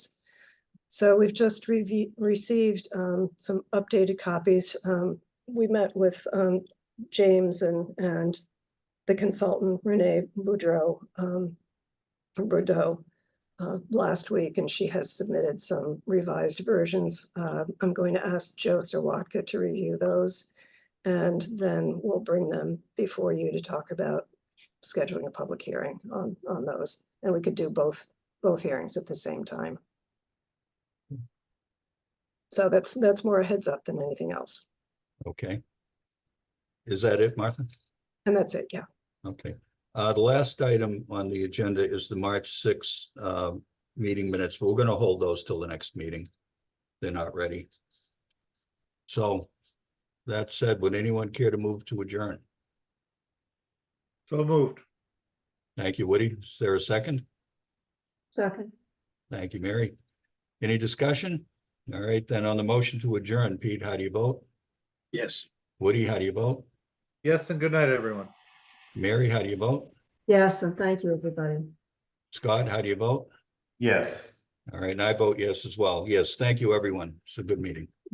So we've just revi- received um, some updated copies. Um, We met with um, James and, and the consultant Renee Boudreau, um, from Bordeaux, uh, last week, and she has submitted some revised versions. Uh, I'm going to ask Joe Zerwatka to review those. And then we'll bring them before you to talk about scheduling a public hearing on, on those. And we could do both, both hearings at the same time. So that's, that's more a heads up than anything else. Okay. Is that it, Martha? And that's it, yeah. Okay. Uh, the last item on the agenda is the March sixth, uh, meeting minutes. We're gonna hold those till the next meeting. They're not ready. So that said, would anyone care to move to adjourn? So moved. Thank you, Woody. Is there a second? Second. Thank you, Mary. Any discussion? All right, then on the motion to adjourn, Pete, how do you vote? Yes. Woody, how do you vote? Yes, and good night, everyone. Mary, how do you vote? Yes, and thank you, everybody. Scott, how do you vote? Yes. All right, and I vote yes as well. Yes, thank you, everyone. It's a good meeting.